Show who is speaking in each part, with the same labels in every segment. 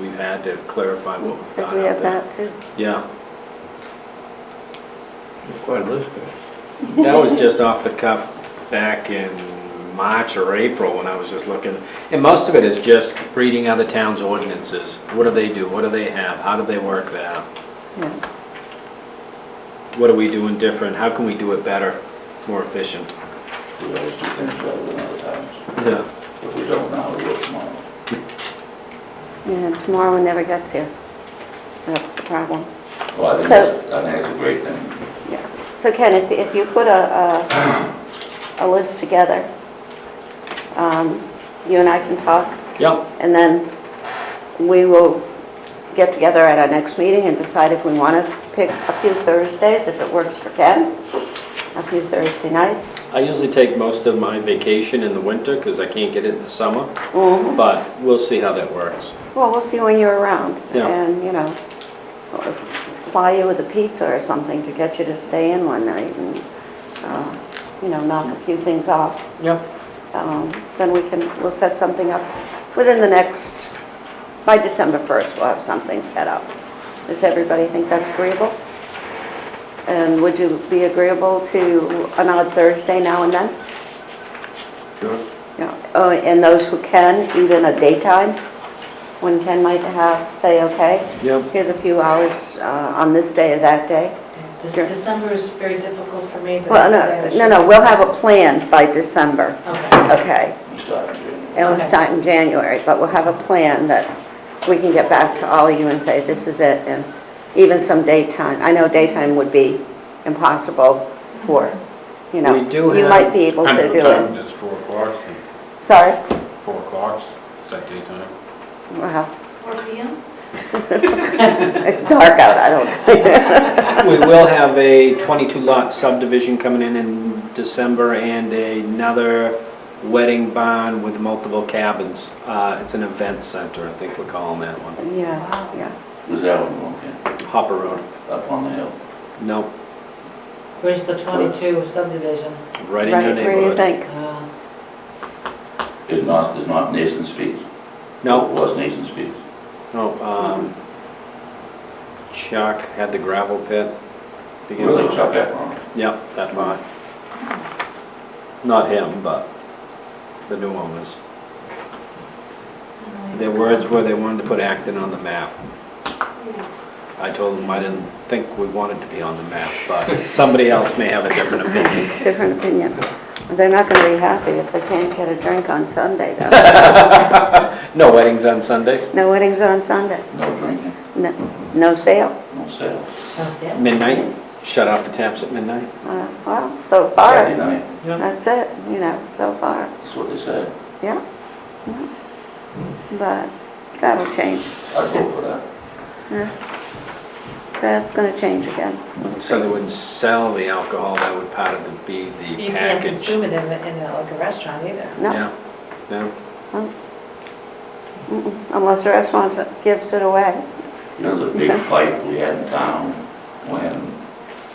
Speaker 1: Matt to clarify what we've got
Speaker 2: because we
Speaker 1: out
Speaker 2: have
Speaker 1: there.
Speaker 2: that too.
Speaker 1: Yeah,
Speaker 3: Quite a list there.
Speaker 1: that was just off the cuff back in March or April when I was just looking. And most of it is just reading other towns' ordinances. What do they do? What do they have? How do they work that?
Speaker 2: Yeah.
Speaker 1: What are we doing different? How can we do it better, more efficient?
Speaker 4: We always do things better than other times.
Speaker 1: Yeah.
Speaker 4: If we don't now, we will tomorrow.
Speaker 2: And tomorrow never gets here. That's the problem.
Speaker 4: Well, I
Speaker 2: So-
Speaker 4: think that's, I think that's a great thing.
Speaker 2: Yeah. So Ken, if, if you put a, a, a list together, um, you and I can talk
Speaker 1: Yeah,
Speaker 2: And then we will get together at our next meeting and decide if we want to pick a few Thursdays, if it works for Ken, a few Thursday nights.
Speaker 1: I usually take most of my vacation in the winter because I can't get it in the summer,
Speaker 2: Mhm.
Speaker 1: but we'll see how that works.
Speaker 2: Well, we'll see when you're around.
Speaker 1: Yeah.
Speaker 2: And, you know, or fly you with a pizza or something to get you to stay in one night and, uh, you know, knock a few things off.
Speaker 1: Yeah.
Speaker 2: Um, Then we can, we'll set something up within the next, by December 1st, we'll have something set up. Does everybody think that's agreeable? And would you be agreeable to an odd Thursday now and then? Yeah. Oh, And those who can, even a daytime, when Ken might have, say, okay?
Speaker 1: Yeah.
Speaker 2: Here's a few hours uh, on this day or that day.
Speaker 5: Dec-
Speaker 2: Sure.
Speaker 5: December is very difficult for me, but...
Speaker 2: Well,
Speaker 5: I
Speaker 2: no,
Speaker 5: should-
Speaker 2: no, no, we'll have a plan by December,
Speaker 5: Okay,
Speaker 2: okay?
Speaker 4: We start in January.
Speaker 2: And we'll
Speaker 5: Okay.
Speaker 2: start in January, but we'll have a plan that we can get back to all of you and say, this is it, and even some daytime. I know daytime would be impossible for, you know,
Speaker 1: We do
Speaker 2: you
Speaker 1: have-
Speaker 2: might be able to do it.
Speaker 6: It's four o'clock,
Speaker 2: Sorry,
Speaker 6: four o'clock's set daytime.
Speaker 2: well,
Speaker 5: 4 PM?
Speaker 2: it's dark out, I don't,
Speaker 1: We will have a 22-lot subdivision coming in in December and another wedding barn with multiple cabins. Uh, It's an event center, I think we're calling that one.
Speaker 2: yeah, yeah,
Speaker 4: Is that one, okay,
Speaker 1: Hopper Road.
Speaker 4: up on the hill?
Speaker 1: Nope,
Speaker 5: Where's the 22 subdivision?
Speaker 1: right in your
Speaker 2: right, where you
Speaker 1: neighborhood.
Speaker 2: think?
Speaker 5: Uh,
Speaker 4: It's not, it's not Nathan Speaks?
Speaker 1: No,
Speaker 4: It was Nathan Speaks.
Speaker 1: no. um, Chuck had the gravel pit. The-
Speaker 4: Really, Chuck Efron.
Speaker 1: Yep, that lot. Not him, but the new owners. Their words were they wanted to put Acton on the map. I told them I didn't think we wanted to be on the map, but somebody else may have a different opinion.
Speaker 2: Different opinion. They're not gonna be happy if they can't get a drink on Sunday, though.
Speaker 1: No weddings on Sundays?
Speaker 2: No weddings on Sunday,
Speaker 4: No drinking,
Speaker 2: no, no sale,
Speaker 4: no sales.
Speaker 5: That's it?
Speaker 1: Midnight? Shut off the taps at midnight?
Speaker 2: Uh, well, so
Speaker 4: Friday
Speaker 2: far,
Speaker 4: night,
Speaker 2: that's it, you know, so far.
Speaker 4: that's what they said.
Speaker 2: Yeah, yeah. but that'll change.
Speaker 4: I'd vote for that.
Speaker 2: Yeah. That's gonna change again.
Speaker 1: So they wouldn't sell the alcohol, that would part of it be the
Speaker 5: You can't
Speaker 1: package.
Speaker 5: consume it in, the- in the- like a restaurant either.
Speaker 2: No,
Speaker 1: Yeah, no.
Speaker 2: mm-mm, unless the restaurant gives it away.
Speaker 4: You know, the big fight we had in town when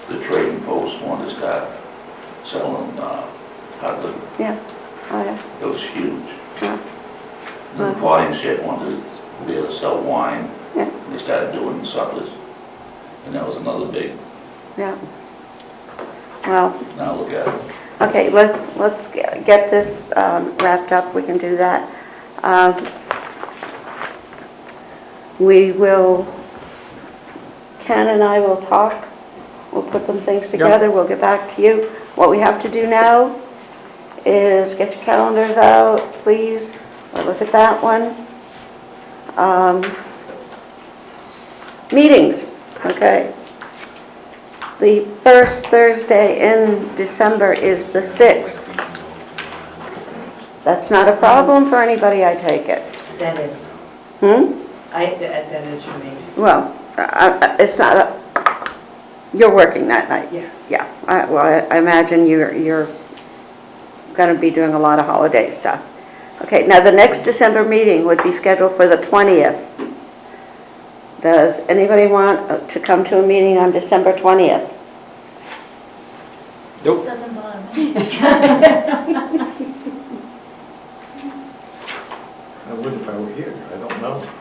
Speaker 4: the trading post wanted to start selling, uh, hard liquor.
Speaker 2: Yeah, oh, yeah,
Speaker 4: It was huge.
Speaker 2: yeah,
Speaker 4: The
Speaker 2: Hmm.
Speaker 4: party and shit wanted to be able to sell wine.
Speaker 2: Yeah.
Speaker 4: They started doing suppers. And that was another big,
Speaker 2: yeah. Well,
Speaker 4: now look at it.
Speaker 2: okay, let's, let's g- get this um, wrapped up, we can do that. Um, We will, Ken and I will talk, we'll put some things together, we'll get back to you. What we have to do now is get your calendars out, please, We'll look at that one. Um, Meetings, okay. The first Thursday in December is the 6th. That's not a problem for anybody, I take it.
Speaker 5: That is,
Speaker 2: Hmm?
Speaker 5: I, that that is for me.
Speaker 2: Well, I- I- it's not, a- you're working that night?
Speaker 5: Yeah.
Speaker 2: Yeah, I- well, I- I imagine you're, you're going to be doing a lot of holiday stuff. Okay, now the next December meeting would be scheduled for the 20th. Does anybody want to come to a meeting on December 20th?
Speaker 1: Nope.
Speaker 7: Doesn't bother me.
Speaker 3: I would if I were here, I don't know.